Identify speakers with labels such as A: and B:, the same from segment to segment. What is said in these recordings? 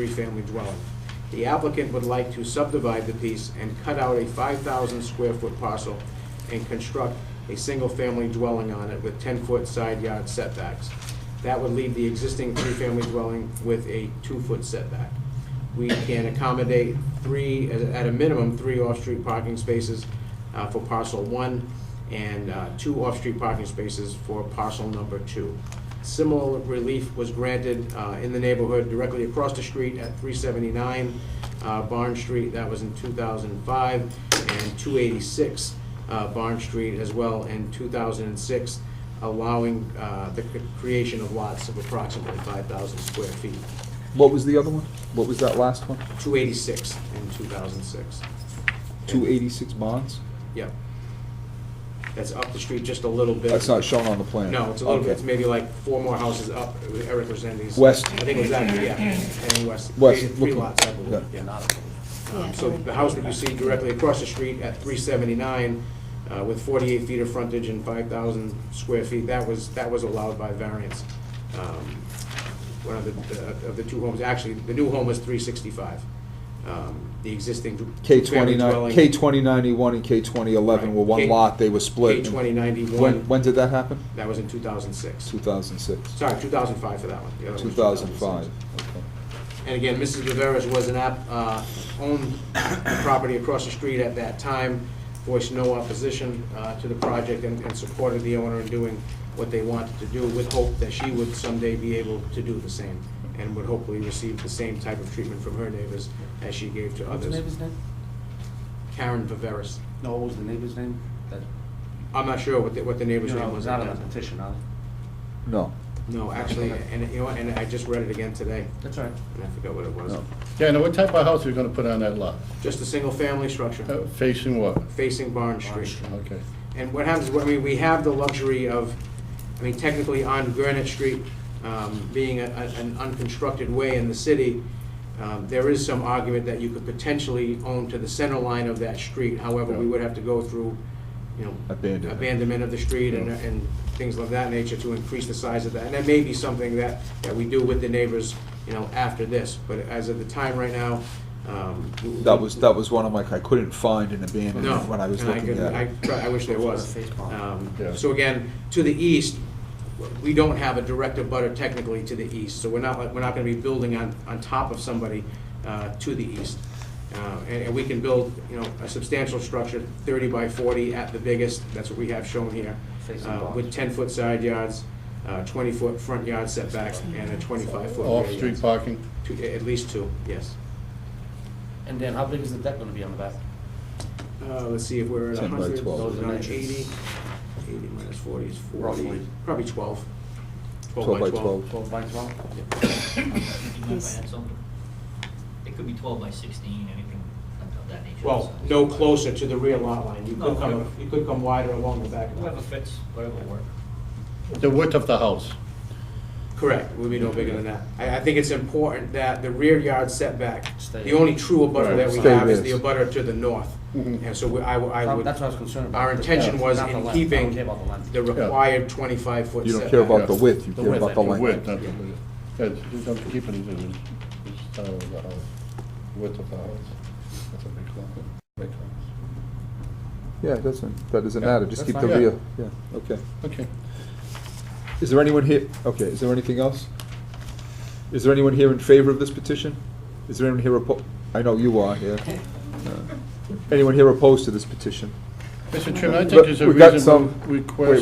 A: three-family dwelling. The applicant would like to subdivide the piece and cut out a 5,000 square foot parcel and construct a single-family dwelling on it with 10-foot side yard setbacks. That would leave the existing three-family dwelling with a two-foot setback. We can accommodate three, at at a minimum, three off-street parking spaces uh, for parcel one and uh, two off-street parking spaces for parcel number two. Similar relief was granted uh, in the neighborhood directly across the street at 379 uh, Barn Street, that was in 2005, and 286 uh, Barn Street as well in 2006, allowing uh, the cre- creation of lots of approximately 5,000 square feet,
B: What was the other one? What was that last one?
A: 286 in 2006.
B: Two eighty-six bonds?
A: Yep. That's up the street just a little bit.
B: That's not shown on the plan.
A: No, it's a little,
B: Okay.
A: it's maybe like four more houses up, Eric was in these.
B: West.
A: I think it was that, yeah, and west.
B: West,
A: Three- Three
B: looking-
A: lots, I believe,
B: yeah.
A: yeah. Um, So the house that you see directly across the street at three seventy-nine, uh, with forty-eight feet of frontage and five thousand square feet, that was, that was allowed by variance. Um, One of the, the- of the two homes, actually, the new home was three sixty-five. Um, The existing.
B: K
A: two-family
B: twenty-nine,
A: dwelling-
B: K twenty ninety-one and K twenty eleven
A: Right.
B: were one
A: K-
B: lot, they were split.
A: K
B: and-
A: twenty
B: When,
A: ninety-one,
B: when did that happen?
A: that was in two thousand six.
B: Two thousand six,
A: Sorry, two thousand five for that one. The other one
B: two
A: was
B: thousand
A: 2006.
B: five.
A: And again, Mrs. Viveras was an app, uh, owned the property across the street at that time, voiced no opposition uh, to the project and and supported the owner in doing what they wanted to do with hope that she would someday be able to do the same and would hopefully receive the same type of treatment from her neighbors as she gave to
C: What's the
A: others.
C: neighbor's name?
A: Karen Viveras.
C: No, what was the neighbor's name? That-
A: I'm not sure what the, what the neighbor's
C: You know,
A: name
C: it
A: was.
C: was not on the petition, huh?
B: No,
A: No, actually, and you know, what, and I just read it again today
C: That's all right.
A: and I forgot what it was.
B: no.
D: Yeah, now what type of house are you gonna put on that lot?
A: Just a single-family structure
D: Uh, Facing what?
A: facing Barn Street.
D: Okay.
A: And what happens, I mean, we have the luxury of, I mean, technically on Granite Street, um, being a- a- an unconstructed way in the city, um, there is some argument that you could potentially own to the center line of that street. However, we would have to go through, you know.
B: Abandonment.
A: Abandonment of the street and,
D: Yeah.
A: and things of that nature to increase the size of that. And that may be something that, that we do with the neighbors, you know, after this. But as of the time right now, um. w-
B: That was, that was one of my, I couldn't find an
A: no,
B: abandonment when I was
A: and
B: looking
A: couldn't-
B: at it.
A: I, try- I wish there was.
C: Face palm.
A: Um,
D: Yeah.
A: So again, to the east, we don't have a direct abutter technically to the east, so we're not, like- we're not gonna be building on, on top of somebody uh, to the east. Uh, And, and we can build, you know, a substantial structure, thirty by forty at the biggest, that's what we have shown here.
C: Facing
A: uh,
C: barns.
A: With ten-foot side yards, uh, twenty-foot front yard setbacks, and a twenty-five-foot rear
D: Off-street
A: yard.
D: parking?
A: Two- At least two, yes.
C: And then how big is the deck gonna be on the back?
A: Uh, let's see, if we're at
B: 10 by
A: hundred,
B: 12.
A: those are 80. 80 minus forty is forty,
C: Roughly.
A: probably twelve.
B: Twelve by twelve.
C: Twelve by twelve?
E: You mind if I add something? It could be twelve by sixteen, anything of that nature.
A: Well,
E: So-
A: no closer to the rear lot line, you
E: No,
A: could come,
E: whatever.
A: you could come wider along the back.
E: Whatever fits, whatever will work.
D: The width of the house?
A: Correct, would be no bigger than that. I, I think it's important that the rear yard setback,
C: Stay.
A: the only true abutter
D: Right.
A: that we
B: Stay
A: have is
B: this.
A: the abutter to the north.
D: Mhm.
A: And so we- I, w- I would,
C: That's what I was concerned about.
A: our intention was
C: Not the
A: in
C: length. I don't
A: keeping
C: care about the length.
A: the required twenty-five foot setback.
B: You don't care about the
D: Yeah.
B: width, you
C: The
B: care
C: width,
B: about
C: I
B: the
C: think.
D: The
B: length.
D: width, not the width. Yeah, you don't keep it, it's, it's style of the house, width of the house. That's a big lot. Big house.
B: Yeah, it doesn't, that doesn't
D: Yeah,
B: matter, just
C: that's
B: keep the
C: fine.
B: rear, yeah, okay.
D: Okay.
B: Is there anyone here, okay, is there anything else? Is there anyone here in favor of this petition? Is there anyone here oppo, I know you are here. Uh, Anyone here opposed to this petition?
D: Mr. Chairman, I
B: But
D: think there's a
B: we've got
D: reasonable
B: some-
D: request.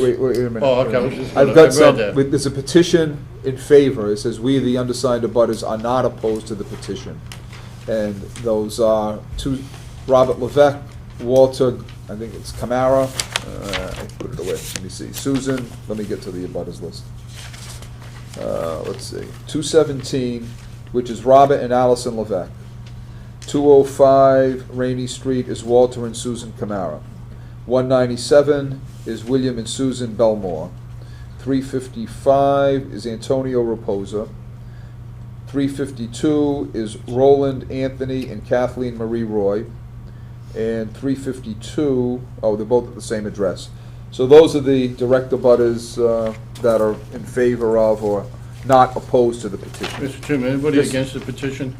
B: Wait, wait, wait a minute.
D: Oh, okay, I was just, I
B: I've got some,
D: read
B: with-
D: that.
B: there's a petition in favor, it says, "We, the undersigned abutters, are not opposed to the petition." And those are two, Robert Levesque, Walter, I think it's Camara, uh, I put it away, let me see, Susan, let me get to the abutters list. Uh, let's see, two seventeen, which is Robert and Allison Levesque. Two oh five Rainy Street is Walter and Susan Camara. One ninety-seven is William and Susan Belmore. 355 is Antonio Reposa. 352 is Roland Anthony and Kathleen Marie Roy. And 352, oh, they're both at the same address. So those are the direct abutters uh, that are in favor of or not opposed to the petition.
D: Mr. Chairman, anybody
B: Yes.
D: against the petition?